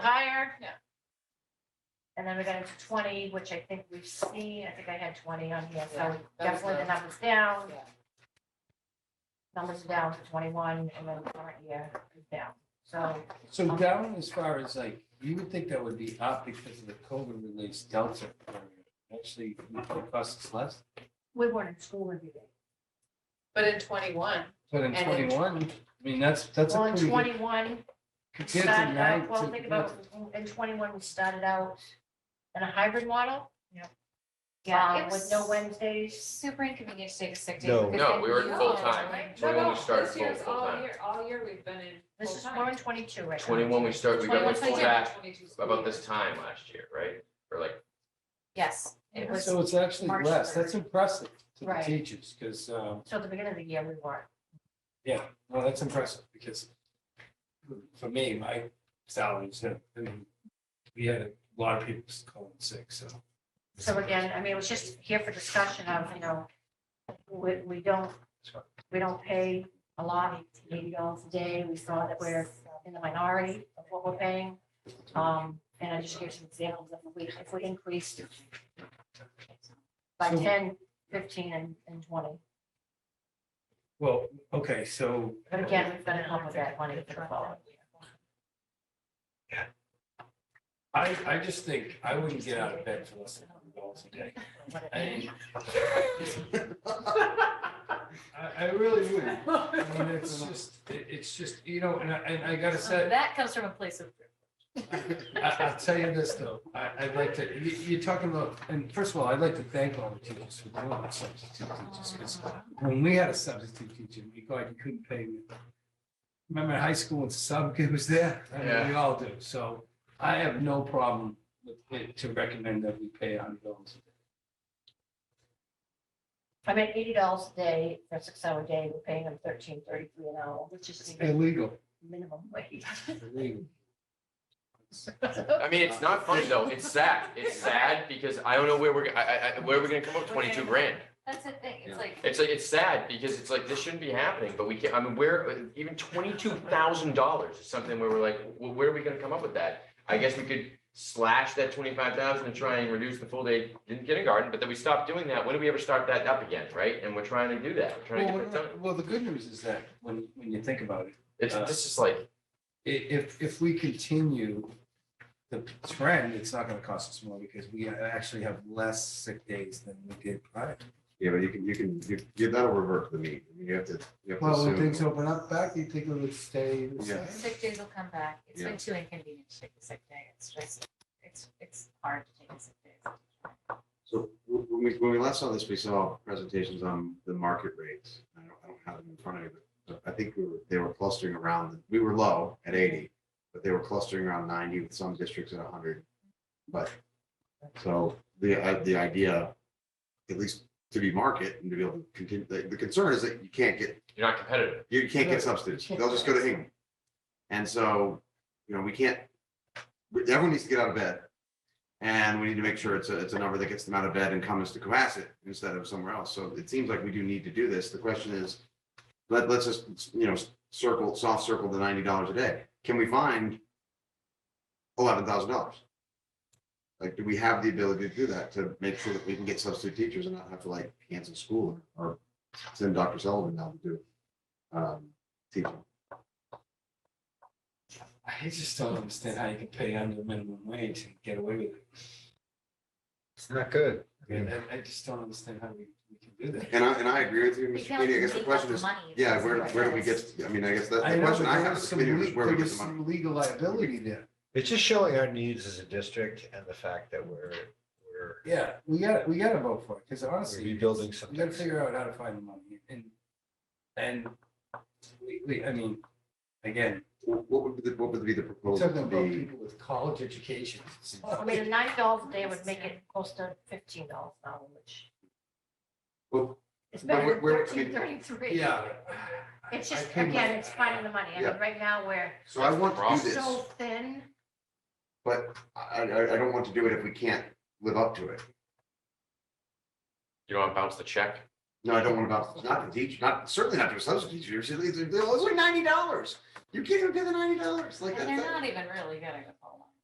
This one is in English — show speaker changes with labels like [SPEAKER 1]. [SPEAKER 1] there?
[SPEAKER 2] No.
[SPEAKER 1] And then we got into twenty, which I think we've seen, I think I had twenty on here,
[SPEAKER 2] Yeah,
[SPEAKER 1] so
[SPEAKER 2] that was
[SPEAKER 1] definitely the
[SPEAKER 2] nice.
[SPEAKER 1] numbers down.
[SPEAKER 2] Yeah.
[SPEAKER 1] Numbers down to twenty-one, and then current year is down, so.
[SPEAKER 3] So down as far as like, you would think that would be up because of the COVID release delta. variant. Actually, it costs less,
[SPEAKER 1] We weren't in school every day.
[SPEAKER 2] But in twenty-one,
[SPEAKER 3] but
[SPEAKER 2] And
[SPEAKER 3] in
[SPEAKER 2] in-
[SPEAKER 3] twenty-one, I mean, that's, that's a
[SPEAKER 1] Well, in
[SPEAKER 3] pretty good.
[SPEAKER 1] twenty-one, we
[SPEAKER 3] compared to
[SPEAKER 1] started
[SPEAKER 3] nine-
[SPEAKER 1] out, well,
[SPEAKER 3] to-
[SPEAKER 1] think about, it, in twenty-one, we started out in a hybrid model.
[SPEAKER 4] Yeah, it
[SPEAKER 1] um,
[SPEAKER 4] was
[SPEAKER 1] With no Wednesdays.
[SPEAKER 4] Super inconvenient to take a sick day.
[SPEAKER 5] No.
[SPEAKER 4] because
[SPEAKER 6] No,
[SPEAKER 4] then
[SPEAKER 6] we were
[SPEAKER 4] you-
[SPEAKER 6] full-time.
[SPEAKER 2] no,
[SPEAKER 6] We only
[SPEAKER 2] no,
[SPEAKER 6] started
[SPEAKER 2] this
[SPEAKER 6] full-
[SPEAKER 2] year's all
[SPEAKER 6] full-time.
[SPEAKER 2] year, all year we've been in
[SPEAKER 1] This is,
[SPEAKER 2] full-time.
[SPEAKER 1] we're in twenty-two right now.
[SPEAKER 6] Twenty-one, we started, we got
[SPEAKER 2] 21,
[SPEAKER 6] went
[SPEAKER 2] 22,
[SPEAKER 6] full back
[SPEAKER 2] 22 school
[SPEAKER 6] about
[SPEAKER 2] year.
[SPEAKER 6] this time last year, right? Or like,
[SPEAKER 4] Yes, it was,
[SPEAKER 3] So it's actually
[SPEAKER 4] March
[SPEAKER 3] less, that's
[SPEAKER 4] third.
[SPEAKER 3] impressive to the
[SPEAKER 1] Right.
[SPEAKER 3] teachers, because, um,
[SPEAKER 1] So at the beginning of the year, we weren't.
[SPEAKER 3] yeah, no, that's impressive, because for me, my salaries, I mean, we had a lot of people calling sick, so.
[SPEAKER 1] So again, I mean, it was just here for discussion of, you know, we, we don't, we don't pay a lot, eighty dollars a day. We saw that we're in the minority of what we're paying. Um, and I just gave some examples of if we, if we increased by
[SPEAKER 3] So-
[SPEAKER 1] 10, 15, and, and twenty.
[SPEAKER 3] Well, okay, so
[SPEAKER 1] But again, we've got to help with that money for the following.
[SPEAKER 3] I, I just think I wouldn't get out of bed for less than hundred dollars a day. I, I I really wouldn't. I mean, it's just, it- it's just, you know, and I, and I gotta
[SPEAKER 4] so
[SPEAKER 3] say,
[SPEAKER 4] that comes from a place of.
[SPEAKER 3] I, I'll tell you this though, I, I'd like to, you, you're talking about, and first of all, I'd like to thank all the teachers who were on substitute teachers. 'cause When we had a substitute teacher, we thought you couldn't pay me. Remember in high school when sub kid was there? I mean, we all do. So I have no problem with it to recommend that we pay a hundred dollars a day.
[SPEAKER 1] I mean, eighty dollars a day for a six-hour day, we're paying them thirteen thirty-three an hour, which is the
[SPEAKER 3] Illegal.
[SPEAKER 1] minimum wage.
[SPEAKER 3] Illegal.
[SPEAKER 6] I mean, it's not funny though. It's sad. It's sad because I don't know where we're, I, I- I, where are we gonna come up with twenty-two grand?
[SPEAKER 4] That's the thing, it's like,
[SPEAKER 6] It's like, it's sad because it's like, this shouldn't be happening, but we can't, I mean, where, even twenty-two thousand dollars is something where we're like, well, where are we gonna come up with that? I guess we could slash that twenty-five thousand and try and reduce the full day in kindergarten, but then we stopped doing that. When do we ever start that up again, right? And we're trying to do that. We're trying to
[SPEAKER 3] Well,
[SPEAKER 6] get that done.
[SPEAKER 3] what- well, the good news is that when, when you think about it,
[SPEAKER 6] It's, this is like,
[SPEAKER 3] i- if, if we continue the trend, it's not gonna cost us more because we actually have less sick days than we did prior.
[SPEAKER 5] Yeah, but you can, you can, you, you- that'll revert to the mean. I mean, You have to, you have to
[SPEAKER 3] Well,
[SPEAKER 5] assume.
[SPEAKER 3] when things open up back, you think it would stay the
[SPEAKER 5] Yeah.
[SPEAKER 3] same?
[SPEAKER 4] sick days will come back. It's
[SPEAKER 5] Yeah.
[SPEAKER 4] been too inconvenient to take a sick day. It's just, it's, it's hard to take a sick day.
[SPEAKER 5] So w- when we, when we last saw this, we saw presentations on the market rates. I don't, I don't have them in front of me, but I think we were, they were clustering around, we were low at eighty, but they were clustering around ninety with some districts at hundred. But, so the, i- the idea, at least to be market and to be able to continue, the, the concern is that you can't get
[SPEAKER 6] you're not competitive.
[SPEAKER 5] You can't
[SPEAKER 3] Right.
[SPEAKER 5] get substitutes. They'll just go to Hingham. And so, you know, we can't, we- everyone needs to get out of bed. And we need to make sure it's a, it's a number that gets them out of bed and comes to Cohasset instead of somewhere else. So it seems like we do need to do this. The question is, let, let's just, you know, circle, soft circle the ninety dollars a day. Can we find eleven thousand dollars? Like, do we have the ability to do that to make sure that we can get substitute teachers and not have to like cancel school or send Dr. Sullivan down to do um, teaching.
[SPEAKER 3] I just don't understand how you can pay under minimum wage and get away with it.
[SPEAKER 7] It's not good.
[SPEAKER 3] I mean, I, I just don't understand how we, we can do that.
[SPEAKER 5] And I, and I agree with you,
[SPEAKER 4] Because
[SPEAKER 5] Mr. Sweeney. I guess the
[SPEAKER 4] we
[SPEAKER 5] question
[SPEAKER 4] have
[SPEAKER 5] is,
[SPEAKER 4] money,
[SPEAKER 5] yeah,
[SPEAKER 4] that's
[SPEAKER 5] where,
[SPEAKER 4] what
[SPEAKER 5] where do
[SPEAKER 4] it
[SPEAKER 5] we
[SPEAKER 4] is.
[SPEAKER 5] get, I mean, I guess that's
[SPEAKER 3] I
[SPEAKER 5] the
[SPEAKER 3] know,
[SPEAKER 5] question
[SPEAKER 3] but
[SPEAKER 5] I
[SPEAKER 3] there
[SPEAKER 5] have,
[SPEAKER 3] was
[SPEAKER 5] is
[SPEAKER 3] some
[SPEAKER 5] where
[SPEAKER 3] le-
[SPEAKER 5] do
[SPEAKER 3] there
[SPEAKER 5] we get
[SPEAKER 3] was
[SPEAKER 5] the money?
[SPEAKER 3] some Legal liability there.
[SPEAKER 7] It's just showing our needs as a district and the fact that we're, we're
[SPEAKER 3] Yeah, we got, we gotta vote for it, because
[SPEAKER 7] we're
[SPEAKER 3] honestly.
[SPEAKER 7] rebuilding
[SPEAKER 3] We gotta
[SPEAKER 7] something.
[SPEAKER 3] figure out how to find the money and, and we, we, I mean, again,
[SPEAKER 5] What what would be, the- what would be the
[SPEAKER 3] we're
[SPEAKER 5] proposal
[SPEAKER 3] talking
[SPEAKER 5] to
[SPEAKER 3] about
[SPEAKER 5] be?
[SPEAKER 3] people with college educations.
[SPEAKER 1] Well, I mean, the nine dollars a day would make it close to fifteen dollars an hour, which
[SPEAKER 5] Well,
[SPEAKER 1] is
[SPEAKER 5] But
[SPEAKER 1] better than
[SPEAKER 5] we're- we're- I mean,
[SPEAKER 1] thirteen thirty-three.
[SPEAKER 3] Yeah.
[SPEAKER 1] It's
[SPEAKER 3] I
[SPEAKER 1] just,
[SPEAKER 3] think-
[SPEAKER 1] again, it's finding the money. I mean,
[SPEAKER 5] Yeah.
[SPEAKER 1] right now, we're
[SPEAKER 5] So I want to do this,
[SPEAKER 1] so thin.
[SPEAKER 5] but I, I, I don't want to do it if we can't live up to it.
[SPEAKER 6] You don't want to bounce the check?
[SPEAKER 5] No, I don't want about, not to teach, not, certainly not to a substitute teacher. It's, it's, it's only ninety dollars. You can't even pay the ninety dollars like
[SPEAKER 4] And they're
[SPEAKER 5] that.
[SPEAKER 4] not even really getting a full